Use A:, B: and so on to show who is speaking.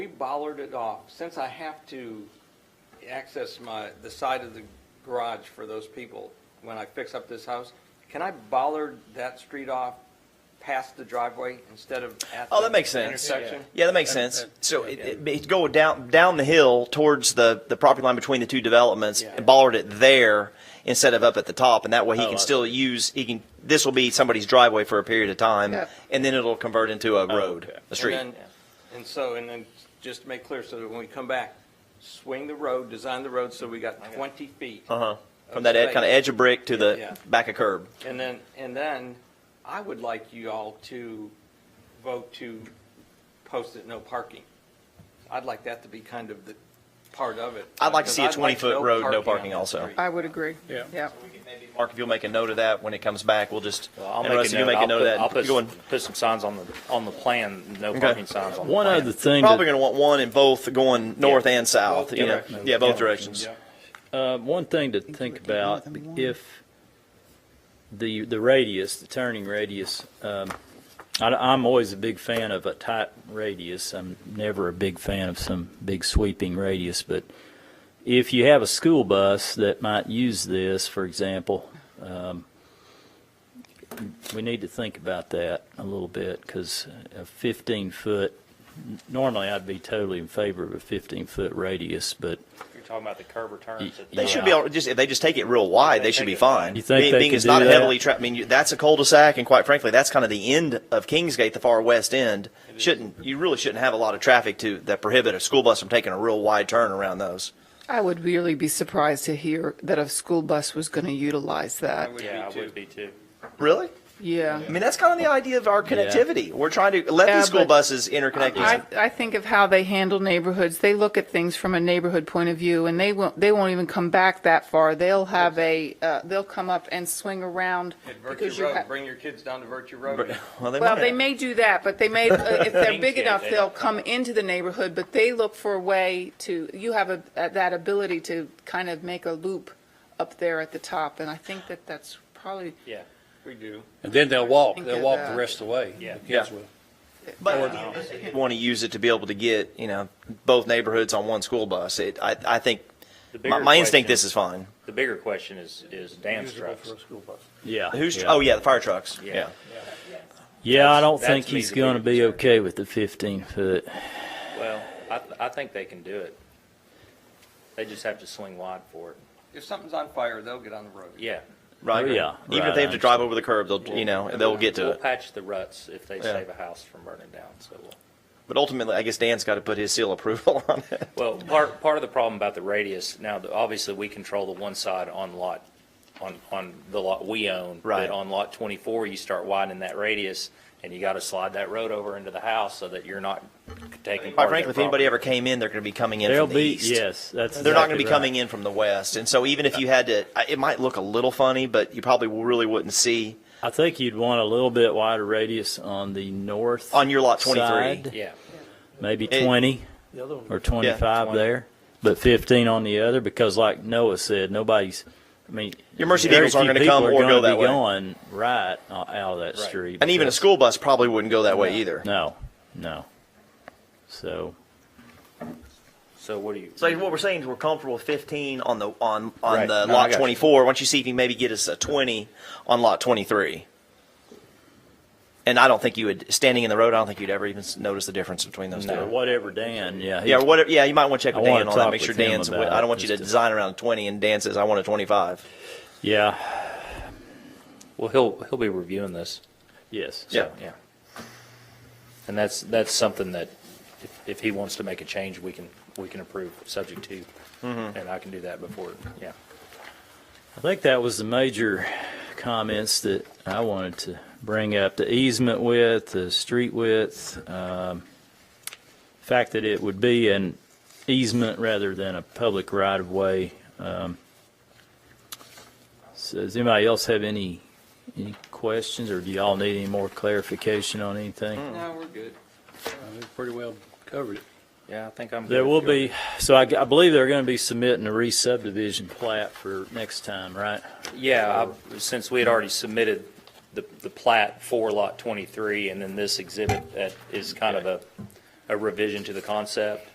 A: bollard it off, since I have to access my, the side of the garage for those people when I fix up this house, can I bollard that street off past the driveway instead of at
B: Oh,
A: the
B: that makes sense.
A: Intersection?
B: Yeah, that makes sense. So it, it, it go down down the hill towards the, the property line between the two developments
A: Yeah.
B: and bollard it there instead of up at the top, and that way he
C: Oh, I
B: can still use he can. This will be somebody's driveway for a period of time, and then it'll convert into a road,
C: okay.
B: a street.
A: And then- and so, and then, just to make clear, so that when we come back, swing the road, design the road so we got twenty feet.
B: uh huh. From that ed,
A: space.
B: kind of edge of brick to the
A: Yeah.
B: back of curb.
A: And then, and then, I would like you all to vote to post it no parking. I'd like that to be kind of the part of it.
B: I'd like to see a
A: Because I'd like
B: 20-foot road, no
A: on
B: parking
A: that
B: also.
A: street.
D: I would agree.
C: Yeah.
D: Yeah.
B: Mark, if you'll make a note of that when it comes back, we'll just.
E: Well, I'll
B: and
E: make
B: Russ, if
E: a
B: you
E: note.
B: make
E: I'll
B: a note
E: put-
B: of that.
E: I'll put,
B: go in.
E: s- put some signs on the, on the plan, no parking signs on the
C: One
E: plan.
C: other thing,
B: Probably
C: that,
B: going to want one in both going north and south.
E: Both
B: you know,
E: directions.
B: yeah, both directions.
C: uh, one thing to think about, if the, the radius, the turning radius, um, I, am always a big fan of a tight radius. I'm never a big fan of some big sweeping radius, but if you have a school bus that might use this, for example, um, we need to think about that a little bit because a 15 foot, normally I'd be totally in favor of a 15 foot radius, but
E: You're talking about the curb returns. at the
B: They
E: top.
B: should be all, just if they just take it real wide, they should be fine.
C: You think
B: being,
C: they
B: being
C: could
B: it's not
C: do
B: a
C: that?
B: heavily tra- I mean, you, that's a cul-de-sac, and quite frankly, that's kind of the end of Kingsgate, the far west end. Shouldn't you really shouldn't have a lot of traffic to that prohibit a school bus from taking a real wide turn around those?
D: I would really be surprised to hear that a school bus was going to utilize that.
A: Would be
E: Yeah, I
A: too.
E: would be too.
B: Really?
D: Yeah.
B: I mean, that's kind of the idea of our connectivity. We're trying to let
D: Yeah,
B: these school
D: but-
B: buses interconnect. these-
D: I, I think of how they handle neighborhoods. They look at things from a neighborhood point of view, and they won't they won't even come back that far. They'll have a uh, they'll come up and swing around
A: At
D: because
A: Virtue
D: you
A: Road,
D: have.
A: bring your kids down to Virtue Road.
B: well, they
D: Well,
B: might.
D: they may do that, but they may uh, if they're big
E: Kingsgate,
D: enough,
E: they
D: they'll
E: don't.
D: come into the neighborhood. But they look for a way to you have a, uh, that ability to kind of make a loop up there at the top, and I think that that's probably
E: Yeah,
A: We do.
F: And then they'll walk,
D: Think
F: they'll
D: of
F: walk
D: that.
F: the rest of the way.
E: Yeah.
F: The kids will.
B: But you want to use it to be able to get you know both neighborhoods on one school bus. It, I, I think
E: The
B: my,
E: bigger
B: my instinct
E: question-
B: this is fine.
E: The bigger question is, is Dan's trucks.
C: yeah.
B: Who's oh yeah, the fire trucks.
E: Yeah.
B: yeah.
C: Yeah, I don't
E: That's-
C: think
E: that's me
C: he's
E: the
C: going to
E: biggest
C: be okay with the 15 foot.
E: Well, I, th- I think they can do it. They just have to swing wide for it.
A: If something's on fire, they'll get on the road.
E: Yeah.
B: Right.
C: Oh, yeah.
B: Even if
C: Right,
B: they have
C: I
B: to drive over the curb, they'll, you know, they'll get to
E: We'll
B: it.
E: patch the ruts if they
B: Yeah.
E: save a house from burning down, so we'll.
B: But ultimately, I guess Dan's got to put his seal approval on it.
E: Well, part, part of the problem about the radius, now, the- obviously, we control the one side on lot, on, on the lot we own.
B: Right.
E: But on lot 24, you start widening that radius, and you got to slide that road over into the house so that you're not taking
B: Quite
E: part of
B: frankly,
E: their
B: if anybody
E: property.
B: ever came in, they're going to be coming in
C: They'll
B: from the
C: be,
B: east.
C: yes, that's.
B: They're not going to be
C: exactly right.
B: coming in from the west. And so even if you had to, I- it might look a little funny, but you probably really wouldn't see.
C: I think you'd want a little bit wider radius on the north.
B: On your lot 23.
C: side,
E: Yeah,
C: Maybe
B: It-
C: 20 or 25
E: 20.
C: there, but 15 on the other, because like Noah said, nobody's, I mean.
B: Your Mercy
C: very
B: Beagles aren't
C: few
B: gonna come
C: people are
B: or go
C: gonna
B: that
C: be
B: way.
C: Going right o- out of that street.
B: And even a
C: because-
B: school bus probably wouldn't go that way either.
C: No, no. So,
E: so what do you?
B: So what we're saying is we're comfortable with 15 on the on on
E: Right.
B: the
E: No, I
B: lot
E: got you.
B: 24. Once you see if you maybe get us a 20 on lot 23. And I don't think you would standing in the road. I don't think you'd ever even s- notice the difference between those
C: or
B: two.
C: whatever, Dan, yeah.
B: Yeah, or whatever. Yeah, you might want to check
C: I
B: with
C: wanna
B: Dan on that.
C: talk
B: Make sure
C: with him
B: Dan's.
C: about
B: I
C: it,
B: don't want you to
C: just to-
B: design around a 20 and Dan says I want a 25.
C: Yeah,
E: Well, he'll, he'll be reviewing this.
C: yes.
B: Yeah.
E: Yeah. And that's, that's something that if, if he wants to make a change, we can, we can approve, subject to.
B: Mm-hmm.
E: And I can do that before, yeah.
C: I think that was the major comments that I wanted to bring up, the easement width, the street width, um, fact that it would be an easement rather than a public right-of-way. Um, so Does anybody else have any, any questions, or do y'all need any more clarification on anything?
A: No, we're good.
F: We Pretty well covered it.
E: Yeah, I think I'm.
C: There will be, so I, I believe they're gonna be submitting a re-subdivision plat for next time, right?
E: Yeah, I- since we had already submitted the, the plat for Lot 23, and then this exhibit that is kind of a, a revision to the concept.